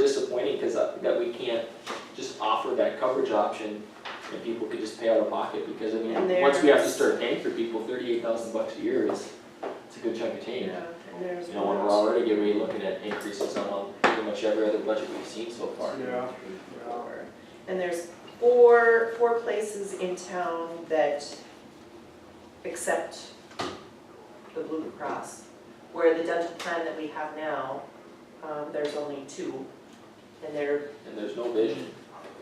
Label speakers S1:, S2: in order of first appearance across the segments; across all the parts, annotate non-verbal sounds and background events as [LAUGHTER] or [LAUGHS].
S1: that, uh, that we can't just offer that coverage option and people could just pay out of pocket, because I mean,
S2: And
S1: once we have to
S2: there's-
S1: start paying for people, thirty-eight thousand bucks a year is, it's a good chunk of change.
S2: Yeah, and there's
S1: You know, when we're
S2: one,
S1: already getting, we're looking at increases on pretty much every other budget we've seen so far.
S3: Yeah, yeah.
S2: four. And there's four, four places in town that accept the Blue Cross. Where the dental plan that we have now, um, there's only two. And they're,
S1: And there's no vision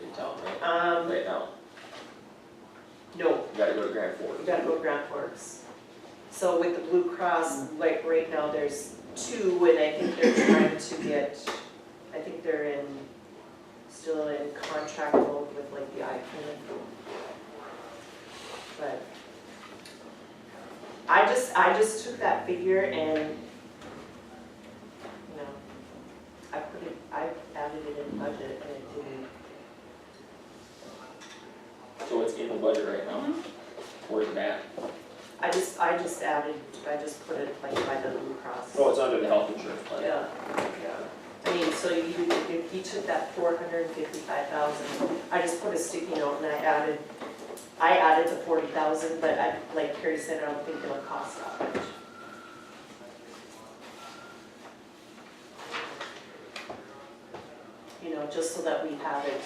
S1: in town, right,
S2: um,
S1: right now,
S2: no,
S1: you gotta go to Grand Forks.
S2: we gotta go to Grant Forks. So with the Blue Cross, like right now, there's two, and I think they're trying to get, I think they're in, still in contract mode with like the eye clinic. But I just, I just took that figure and, you know, I put it, I added it in budget and it didn't
S1: So it's in the budget right now,
S2: Mm-hmm.
S1: where's that?
S2: I just, I just added, I just put it like by the Blue Cross.
S1: Oh, it's under the health insurance plan.
S2: Yeah, yeah. I mean, so you, you- you took that four hundred and fifty-five thousand, I just put a sticky note and I added, I added the forty thousand, but I, like Carrie said, I don't think it'll cost that much. You know, just so that we have it.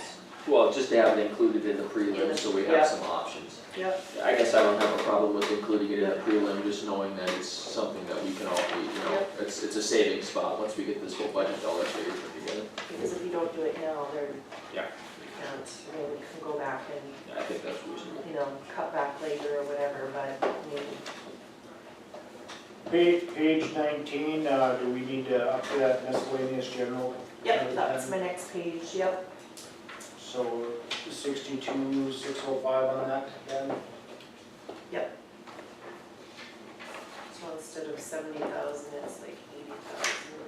S1: Well, just to have it included in the prelim, so we
S2: Yeah.
S1: have some options.
S2: Yep.
S1: I guess I don't have a problem with including it in the prelim, just knowing that it's something that we can all, we- you know,
S2: Yep.
S1: it's, it's a savings spot once we get this whole budget all figured put together.
S2: Because if you don't do it now, there.
S1: Yeah.
S2: We can't, I mean, we can go back and
S1: Yeah, I think that's reasonable.
S2: you know, cut back later or whatever, but I mean,
S3: Page, page nineteen, uh, do we need to up to that miscellaneous general?
S2: yep, that's my next page, yep.
S3: So sixty-two, six oh five on that then?
S2: So instead of seventy thousand, it's like eighty thousand.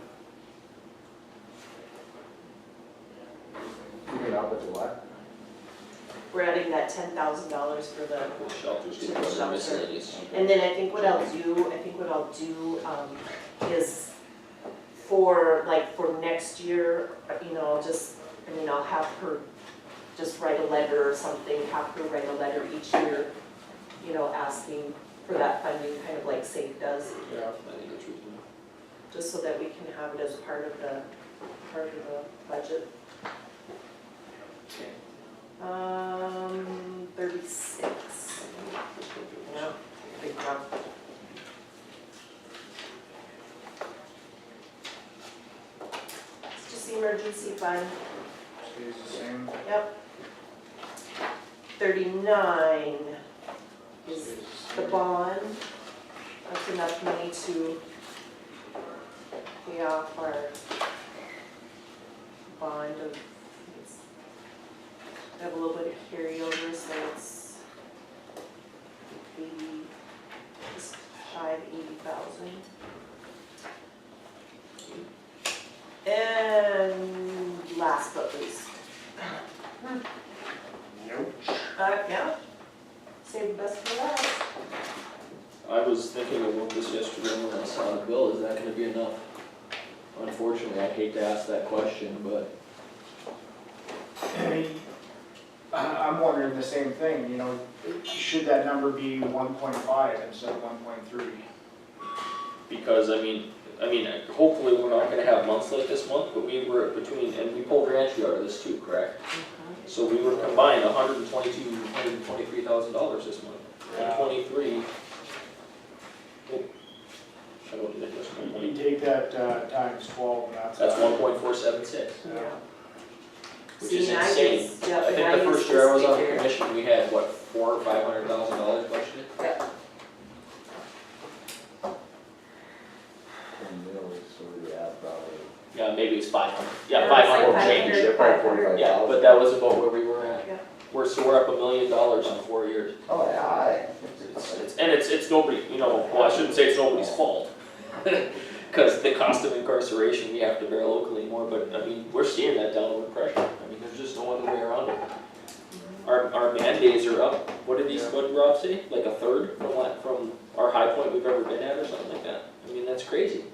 S4: You mean up at the what?
S2: We're adding that ten thousand dollars for the,
S1: The Shelters,
S2: To the
S1: the
S2: shelter.
S1: miscellaneous.
S2: and then I think what I'll do, I think what I'll do, um, is for, like, for next year, you know, I'll just, I mean, I'll have her just write a letter or something, have her write a letter each year, you know, asking for that funding, kind of like SAFE does.
S3: Yeah.
S1: I think that's reasonable.
S2: just so that we can have it as part of the, part of the budget. Um, thirty-six, yeah, big jump. It's just the emergency fund,
S3: Stays the same.
S2: yep. Thirty-nine is
S3: Stays the
S2: the
S3: same.
S2: bond, that's enough money to pay off our bond of, it's- we have a little bit of carryover, so it's eighty, just shy of eighty thousand. And last but least,
S3: Nope. [CLEARS THROAT]
S2: uh, yeah, save the best for last.
S1: I was thinking about this yesterday when I saw the bill, is that gonna be enough? Unfortunately, I hate to ask that question, but
S3: I- I'm wondering the same thing, you know, should that number be one point five instead of one point three?
S1: because I mean, I mean, hopefully we're not gonna have months like this month, but we were between, and we pulled Rancho out of this too, correct?
S2: Mm-hmm.
S1: So we were combined hundred and twenty-two, hundred and twenty-three thousand dollars this month, and
S3: Yeah.
S1: twenty-three. oh, I don't think that's one
S3: You
S1: point,
S3: take that uh, times twelve, and that's.
S1: that's one point four seven six,
S3: Yeah.
S1: which
S2: See,
S1: is
S2: and I
S1: insane.
S2: use- yeah,
S1: I
S2: and I
S1: think the
S2: use
S1: first year I was
S2: this
S1: on
S2: figure.
S1: commission, we had, what, four or five hundred thousand dollars budgeted?
S4: Ten mills, so we have probably.
S1: Yeah, maybe it's five hundred,
S2: Yeah,
S1: yeah,
S2: it was
S1: five
S2: like
S1: hundred
S2: five
S1: change,
S2: hundred.
S4: Yeah, probably 45,000.
S1: yeah, but that was about where we were
S2: Yeah.
S1: at. We're, so we're up a million dollars in four years,
S4: Oh, yeah, I.
S1: it's, it's, and it's, it's nobody, you know, well, I shouldn't say it's nobody's fault. [LAUGHS] Cause the cost of incarceration, we have to bear locally more, but I mean, we're seeing that downward pressure, I mean, there's just no other way around it. Our, our mandates are up, what did these, what did Rob say, like a third from what, from our high point we've ever been at or something like that, I mean, that's crazy.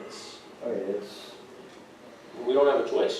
S1: It's,
S4: I mean, it's.
S1: we don't have a choice.